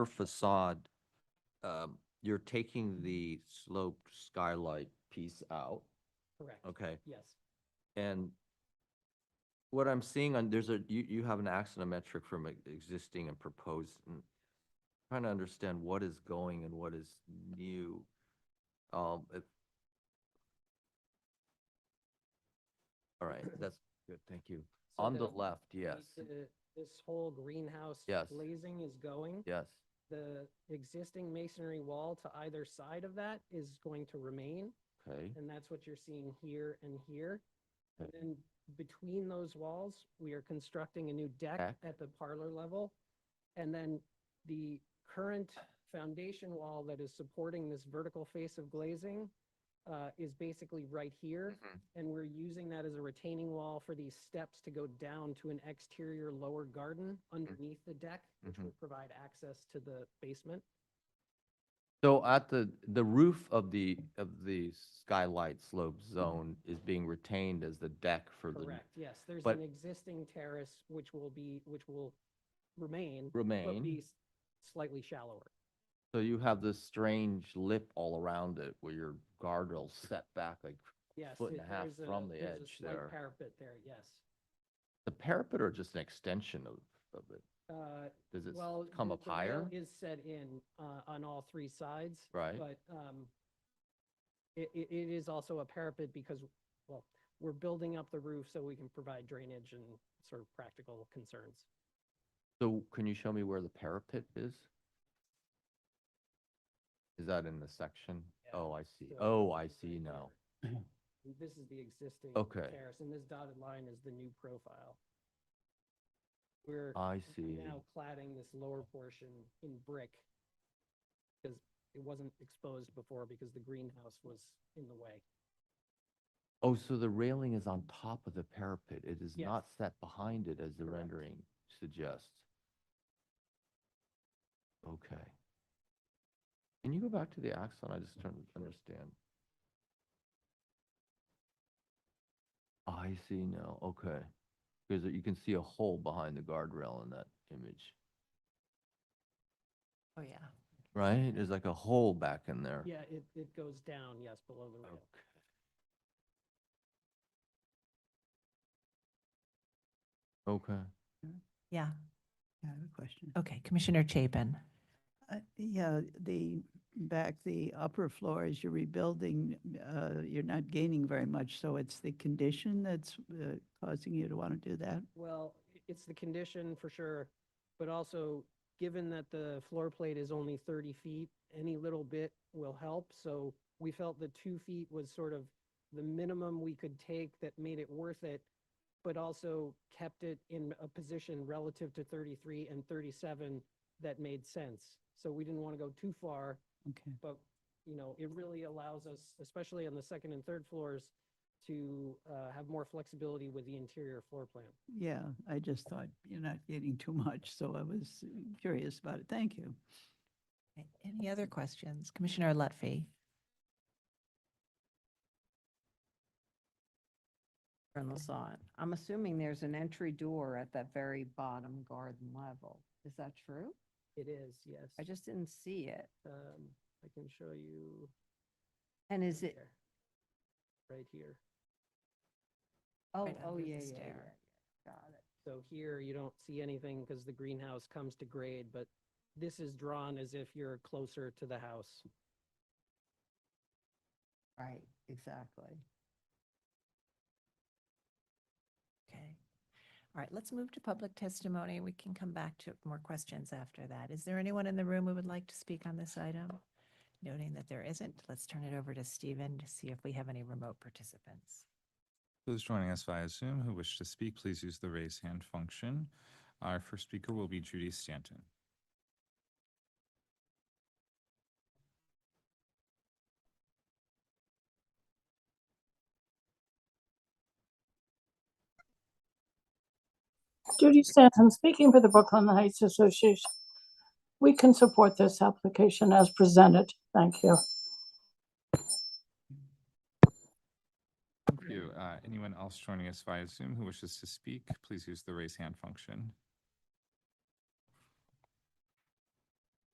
your facade, um, you're taking the sloped skylight piece out, Correct, okay? yes. And what I'm seeing on, there's a, you, you have an axonometric from e- existing and proposed. and Trying to understand what is going and what is new. Um, it- All right, that's good, thank you. So On the the- left, yes, the- This whole greenhouse Yes. glazing is going. yes, The existing masonry wall to either side of that is going to remain, okay, and that's what you're seeing here and here. And Mm-hmm. Okay. then between those walls, we are constructing a new deck Deck. at the parlor level. And then the current foundation wall that is supporting this vertical face of glazing uh, is basically right here. and we're using that as a retaining wall for these steps to go down to an exterior lower garden underneath the deck, which Mhm. will provide access to the basement. So at the, the roof of the, of the skylight slope zone is being retained as the deck for the Correct, yes, there's but- an existing terrace which will be, which will remain, but be remain. s- slightly shallower. So you have this strange lip all around it where your guardrail's set back, like Yes. Foot and it- a half there's from the there's a edge slight there. Parapet there, yes. the parapet or just an extension of, of it? Uh, Does it s- Well. come the- up the rail higher? Is set in uh, on all three sides. Right. But um, it, it it is also a parapet because, well, we're building up the roof so we can provide drainage and sort of practical concerns. So can you show me where the parapet is? Is that in the section? Yeah, Oh, I see. So Oh, I it's right see now. there. And This is the existing Okay. terrace, and this dotted line is the new profile. We're I see. now cladding this lower portion in brick because it wasn't exposed before because the greenhouse was in the way. Oh, so the railing is on top of the parapet. It is Yes. not set behind it as the Correct. rendering suggests. Okay. Can you go back to the axon? I just don't understand. I see now, okay. Because you can see a hole behind the guardrail in that image, Oh, yeah. right? There's like a hole back in there. Yeah, it, it goes down, yes, below the rail. Okay. Okay. Yeah. I have a question. Okay, Commissioner Chapin. Uh, Yeah, the, back the upper floors, you're rebuilding, uh, you're not gaining very much, so it's the condition that's uh, causing you to want to do that? Well, i- it's the condition for sure, but also, given that the floor plate is only thirty feet, any little bit will help, so we felt the two feet was sort of the minimum we could take that made it worth it, but also kept it in a position relative to thirty-three and thirty-seven that made sense. So we didn't want to go too far, Okay. but, you know, it really allows us, especially on the second and third floors, to uh, have more flexibility with the interior floor plan. Yeah, I just thought you're not gaining too much, so I was curious about it. Thank you. Okay, Any other questions? Commissioner Lutfi. From the side. I'm assuming there's an entry door at that very bottom garden level. Is that true? It is, yes. I just didn't see it. um, I can show you. And is right it, there. Right here. oh, Right oh, under the yeah, yeah, yeah, stair. yeah. Got it. So here you don't see anything because the greenhouse comes to grade, but this is drawn as if you're closer to the house. Right, exactly. Okay. All right, let's move to public testimony. We can come back to more questions after that. Is there anyone in the room who would like to speak on this item? Noting that there isn't, let's turn it over to Stephen to see if we have any remote participants. Those joining us via Zoom who wish to speak, please use the raise hand function. Our first speaker will be Judy Stanton. Judy Stanton, speaking for the Brooklyn Heights Association. We can support this application as presented. Thank you. Thank you. Uh, Anyone else joining us via Zoom who wishes to speak, please use the raise hand function.